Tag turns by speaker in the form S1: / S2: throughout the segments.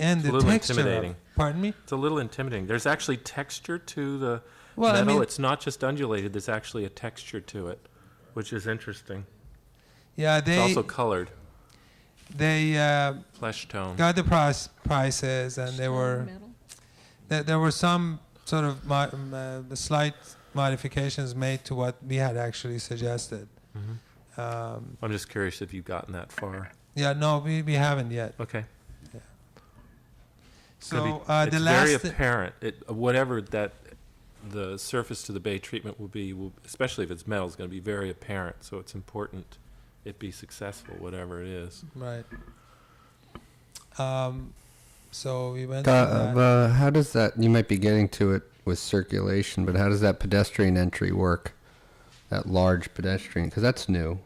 S1: and the
S2: little
S1: texture. of-
S2: intimidating.
S1: Pardon me?
S2: It's a little intimidating. There's actually texture to the
S1: Well, I
S2: metal.
S1: mean-
S2: it's not just undulated. There's actually a texture to it, which is interesting.
S1: Yeah,
S2: It's
S1: they
S2: also colored,
S1: they uh,
S2: flesh tone.
S1: got the price prices, and there were there, there were some sort of mo- um, uh, the slight modifications made to what we had actually suggested.
S2: Mm-hmm.
S1: Um,
S2: I'm just curious if you've gotten that far.
S1: yeah, no, we, we haven't yet.
S2: Okay. It's
S1: So
S2: gonna be-
S1: uh, the
S2: it's
S1: last
S2: very apparent. It, whatever that the surface to the bay treatment will be, will, especially if it's metal, is going to be very apparent. So it's important it be successful, whatever it is.
S1: right. Um, so we went.
S3: Uh,
S1: through that.
S3: uh, uh, how does that? You might be getting to it with circulation, but how does that pedestrian entry work? That large pedestrian, because that's new.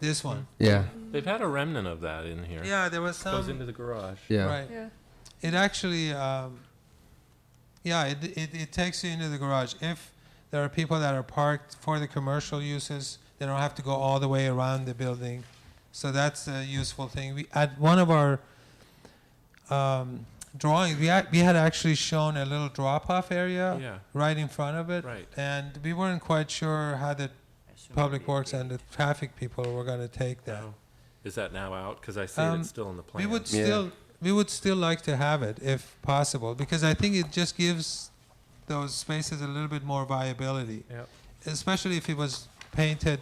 S1: this one.
S3: Yeah,
S2: They've had a remnant of that in here.
S1: Yeah, there was
S2: Goes
S1: some.
S2: into the garage.
S3: yeah.
S1: Right.
S4: Yeah.
S1: It actually, um, yeah, it, it, it takes you into the garage. If there are people that are parked for the commercial uses, they don't have to go all the way around the building. So that's a useful thing. We at one of our um, drawings, we had, we had actually shown a little drop-off area
S2: Yeah.
S1: right in front of it,
S2: Right.
S1: and we weren't quite sure how the public works and the traffic people were going to take that.
S2: Oh. Is that now out? Because I see
S1: Um,
S2: it's still in the
S1: We
S2: plan.
S1: would
S3: Yeah.
S1: still we would still like to have it if possible because I think it just gives those spaces a little bit more viability,
S2: Yep.
S1: especially if it was painted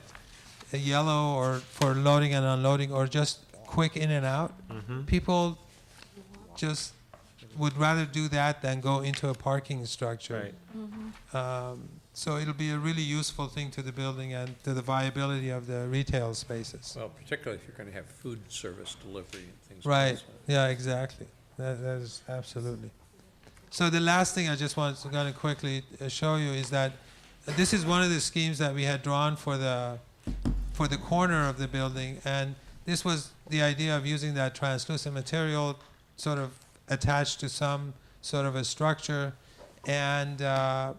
S1: uh, yellow or for loading and unloading or just quick in and out.
S2: Mm-hmm.
S1: People just would rather do that than go into a parking structure.
S2: Right.
S1: Um, so it'll be a really useful thing to the building and to the viability of the retail spaces.
S5: Well, particularly if you're going to have food service delivery and things like
S1: Right.
S5: that.
S1: Yeah, exactly. That, that is absolutely. So the last thing I just want to kind of quickly uh, show you is that this is one of the schemes that we had drawn for the for the corner of the building, and this was the idea of using that translucent material sort of attached to some sort of a structure, and uh,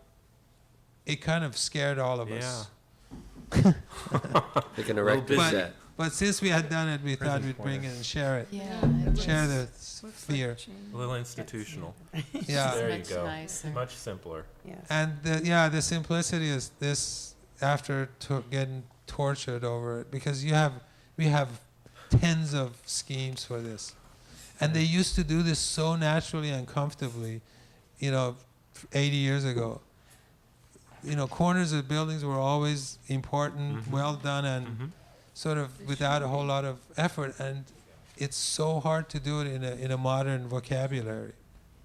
S1: it kind of scared all of us.
S6: They can
S2: Little
S6: erect a
S1: busy.
S6: set.
S1: But since we had done it, we thought
S2: Present
S1: we'd
S2: for
S1: bring
S2: it.
S1: it and share it,
S4: Yeah.
S1: share the fear.
S2: A little institutional.
S1: Yeah.
S2: There you
S4: Much
S2: go.
S4: nicer.
S2: Much simpler.
S1: And the, yeah, the simplicity is this after to getting tortured over it because you have we have tens of schemes for this, and they used to do this so naturally and comfortably, you know, 80 years ago. You know, corners of buildings were always important,
S2: Mhm.
S1: well done, and
S2: Mhm.
S1: sort of without a whole lot of effort, and it's so hard to do it in a in a modern vocabulary,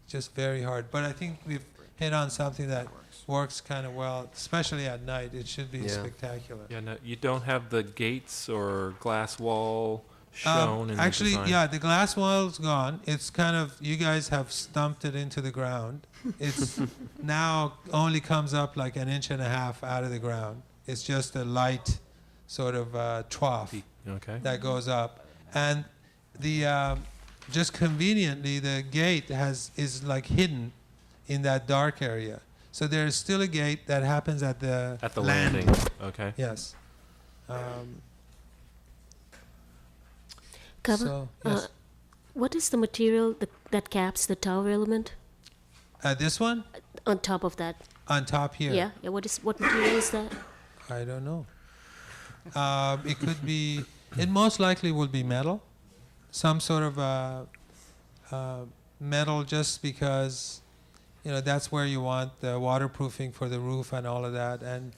S1: just very hard. But I think we've hit on something that works kind of well, especially at night. It should be
S3: Yeah.
S1: spectacular.
S2: Yeah, no, you don't have the gates or glass wall
S1: Um,
S2: shown in
S1: actually,
S2: the design.
S1: yeah, the glass wall's gone. It's kind of you guys have stumped it into the ground. It's now only comes up like an inch and a half out of the ground. It's just a light sort of uh, trough.
S2: Okay.
S1: that goes up, and the um, just conveniently the gate has is like hidden in that dark area. So there is still a gate that happens at the
S2: At the
S1: land.
S2: landing. Okay.
S1: Yes. Um,
S7: Cover.
S1: so yes.
S7: uh, what is the material th- that caps the tower element
S1: Uh, this one
S7: on top of that?
S1: on top here.
S7: Yeah. yeah. What is what material is that?
S1: I don't know. Um, it could be. It most likely will be metal, some sort of uh, uh, metal, just because you know that's where you want the waterproofing for the roof and all of that. And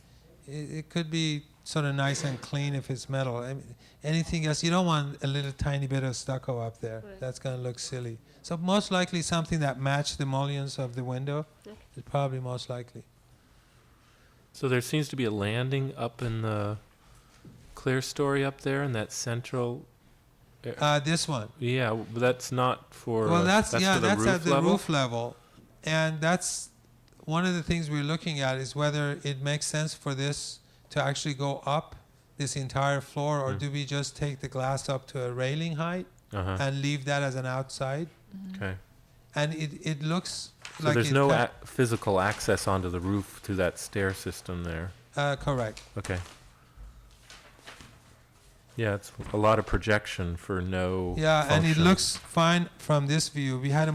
S1: it, it could be sort of nice and clean if it's metal. I mean, anything else, you don't want a little tiny bit of stucco up there.
S7: Right.
S1: That's going to look silly. So most likely something that matched the mullions of the window
S7: Okay.
S1: is probably most likely.
S2: So there seems to be a landing up in the clear story up there in that central.
S1: Uh, this one.
S2: Yeah, w- but that's not for.
S1: Well, that's, yeah,
S2: for the
S1: that's
S2: roof
S1: at the
S2: level?
S1: roof level, and that's one of the things we're looking at is whether it makes sense for this to actually go up this entire floor, or
S2: Mm.
S1: do we just take the glass up to a railing height
S2: Uh-huh.
S1: and leave that as an outside?
S2: Okay.
S1: And it, it looks
S2: So
S1: like
S2: there's
S1: it
S2: no
S1: co-
S2: ac physical access onto the roof through that stair system there.
S1: uh, correct.
S2: Okay. Yeah, it's a lot of projection for no.
S1: Yeah, and it
S2: function.
S1: looks fine from this view. We had a